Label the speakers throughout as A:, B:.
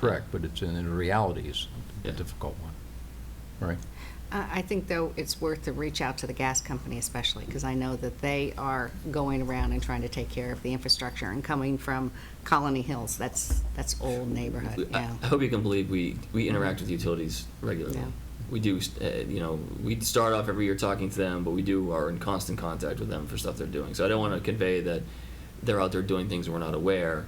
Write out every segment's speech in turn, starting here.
A: correct, but it's, in the reality is a
B: Yeah.
A: difficult one, right?
C: I I think, though, it's worth to reach out to the gas company especially, because I know that they are going around and trying to take care of the infrastructure, and coming from Colony Hills, that's, that's old
B: We-
C: neighborhood,
B: I
C: yeah.
B: I hope you can believe we, we interact with utilities regularly.
C: Yeah.
B: We do, uh, you know, we start off every year talking to them, but we do are in constant contact with them for stuff they're doing. So I don't want to convey that they're out there doing things we're not aware.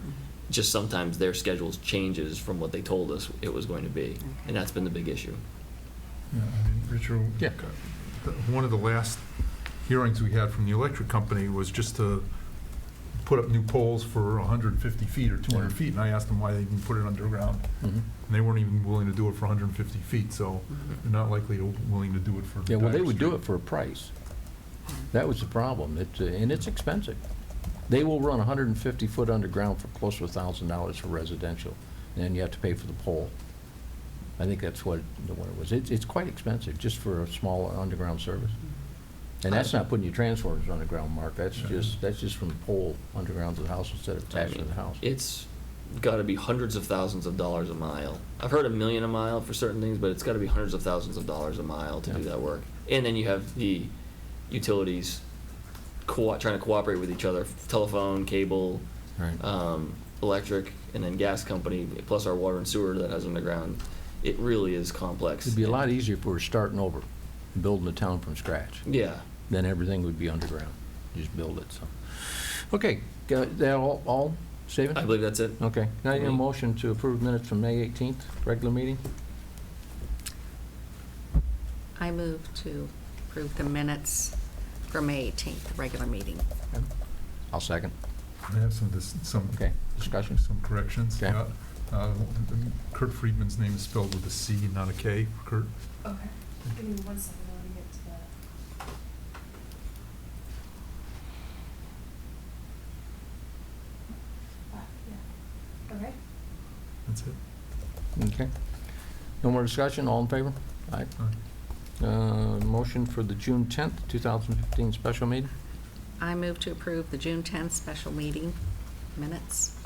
B: Just sometimes their schedules changes from what they told us it was going to be,
C: Okay.
B: and that's been the big issue.
D: Yeah, I mean, Richard, uh,
A: Yeah.
D: the- one of the last hearings we had from the electric company was just to put up new poles for 150 feet or 200 feet, and I asked them why they didn't put it underground,
A: Mhm.
D: and they weren't even willing to do it for 150 feet, so they're not likely to willing to do it for
A: Yeah, well, they
D: Dyer
A: would do
D: Street.
A: it for a price. That was the problem, it's, uh, and it's expensive. They will run 150 foot underground for close to $1,000 for residential, and then you have to pay for the pole. I think that's what, the one it was. It's, it's quite expensive, just for a small underground service. And that's not putting your transformers underground, Mark, that's
D: Yeah.
A: just, that's just from the pole underground to the house instead of attached to the house.
B: It's got to be hundreds of thousands of dollars a mile. I've heard a million a mile for certain things, but it's got to be hundreds of thousands of dollars a mile to do
A: Yeah.
B: that work. And then you have the utilities co- trying to cooperate with each other, telephone, cable,
A: Right.
B: um, electric, and then gas company, plus our water and sewer that has underground. It really is complex.
A: It'd be a lot e- easier if we were starting over, building the town from scratch.
B: Yeah.
A: then everything would be underground. Just build it, so. Okay, got that all, all, Stephen?
B: I believe that's it.
A: Okay, now you need a motion to approve minutes from May 18th, regular meeting?
C: I move to approve the minutes for May 18th, the regular meeting.
A: I'll second.
D: I have some, dis- some
A: Okay, discussion?
D: Some corrections.
A: Okay.
D: yeah. Uh, Kurt Friedman's name is spelled with a C, not a K, Kurt.
E: Okay, give me one second, I wanna get to that. Ah, yeah, okay.
D: That's it.
A: Okay. No more discussion, all in favor? Aye.
D: All right.
A: Uh, Motion for the June 10th, 2015 special meeting?
C: I move to approve the June 10th special meeting minutes.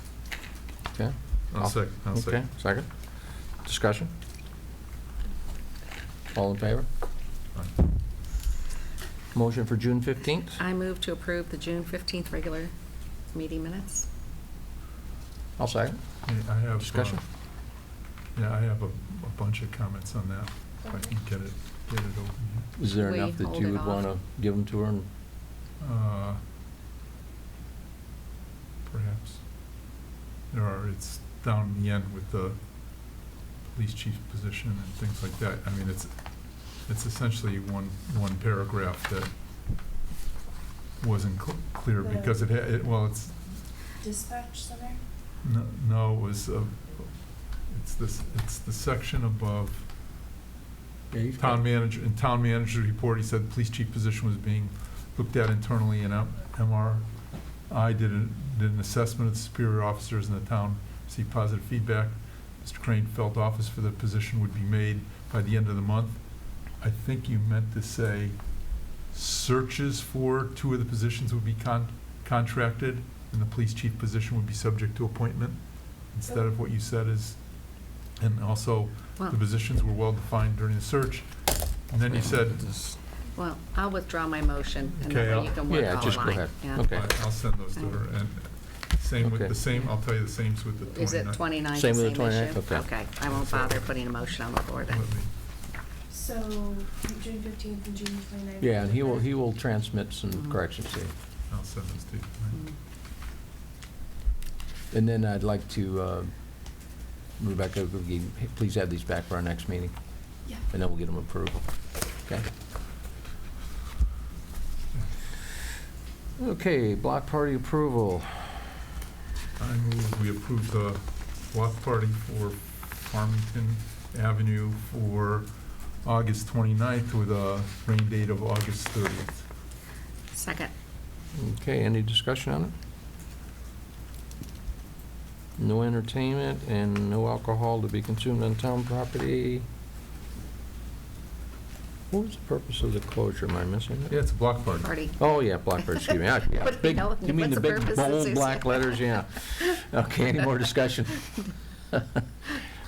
A: Okay?
D: I'll sec, I'll
A: Okay,
D: second.
A: second. Discussion? All in favor?
D: Aye.
A: Motion for June 15th?
C: I move to approve the June 15th regular meeting minutes.
A: I'll second.
D: Yeah, I have. uh,
A: Discussion?
D: Yeah, I have a, a bunch of comments on that, if I can get it, get it open here.
A: Is there
C: We
A: enough that
C: hold
A: you
C: it
A: would
C: off.
A: want to give them to her and
D: Uh, Perhaps. There are, it's down in the end with the police chief position and things like that. I mean, it's, it's essentially one, one paragraph that wasn't cl- clear
E: The-
D: because it, had- it, well, it's,
E: Dispatch center?
D: No, no, it was, uh, it's this, it's the section above town manager, in town manager's report, he said police chief position was being looked at internally and M- MRI did an, did an assessment of the superior officers in the town, received positive feedback. Mr. Crane felt office for the position would be made by the end of the month. I think you meant to say searches for two of the positions would be con- contracted and the police chief position would be subject to appointment instead of what you said is, and also
C: Well,
D: the positions were well-defined during the search. And then you said,
C: Well, I'll withdraw my motion, and
D: Okay,
C: then
D: I'll-
C: you can work
A: Yeah,
C: all
A: just go
C: mine.
A: ahead.
C: Yeah.
A: Okay.
D: I- I'll send those to her, and same with
A: Okay.
D: the same, I'll tell you the same's with the
C: Is it
D: 29th.
C: 29,
A: Same
C: the
A: with the
C: same
A: 29th?
C: issue?
A: Okay.
C: Okay, I won't bother putting a motion on the floor then.
D: Let me-
E: So, June fifteenth and June twenty-ninth.
A: Yeah, and he will, he will transmit some
C: Mhm.
A: corrections to you.
D: I'll send those to you.
A: And then I'd like to, uh, Rebecca, will you please have these back for our next meeting,
E: Yeah.
A: and then we'll get them approved. Okay? Okay, block party approval.
D: I move we approve the block party for Farmington Avenue for August 29th with a rain date of August 30th.
C: Second.
A: Okay, any discussion on it? No entertainment and no alcohol to be consumed on town property. What was the purpose of the closure? Am I missing it?
D: Yeah, it's a block party.
C: Party.
A: Oh, yeah, Blackbird, excuse me. Yeah, yeah,
C: What-
A: big-
C: no,
A: You mean the
C: what's the
A: big
C: purpose of
A: bold
C: Susan?
A: black letters, yeah. Okay, any more discussion?